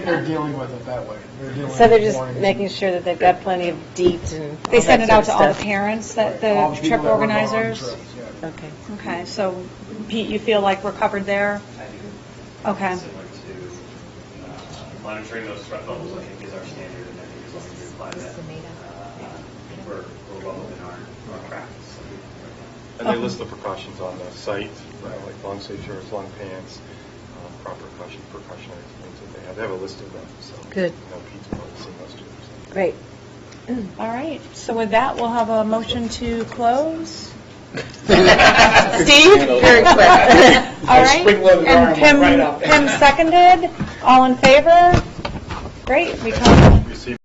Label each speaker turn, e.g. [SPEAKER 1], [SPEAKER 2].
[SPEAKER 1] They're dealing with it that way. They're dealing
[SPEAKER 2] So they're
[SPEAKER 1] with
[SPEAKER 2] just
[SPEAKER 1] warnings.
[SPEAKER 2] making sure that they've got plenty of deets and all
[SPEAKER 3] They
[SPEAKER 2] that
[SPEAKER 3] send it out to
[SPEAKER 2] sort
[SPEAKER 3] all
[SPEAKER 2] of
[SPEAKER 3] the
[SPEAKER 2] stuff.
[SPEAKER 3] parents, that
[SPEAKER 1] All
[SPEAKER 3] the
[SPEAKER 1] people
[SPEAKER 3] trip
[SPEAKER 1] that work on
[SPEAKER 3] organizers?
[SPEAKER 1] trips, yeah.
[SPEAKER 2] Okay.
[SPEAKER 3] Okay, so Pete, you feel like we're covered there?
[SPEAKER 4] I do.
[SPEAKER 3] Okay.
[SPEAKER 4] Similar to uh, monitoring those threat levels, I think is our standard, and I think as long as we apply that, uh, we're we're well within our our practice.
[SPEAKER 5] And they list the precautions on the site, you know, like long sleeve shirts, long pants, um, proper precaution- precautionary things that they have. They have a list of them, so.
[SPEAKER 2] Good.
[SPEAKER 5] You know, Pete's probably seen those too. so.
[SPEAKER 2] Great.
[SPEAKER 3] All right, so with that, we'll have a motion to close.
[SPEAKER 2] Steve, very quick.
[SPEAKER 3] All right? And Pim, Pim seconded, all in favor? Great, we come.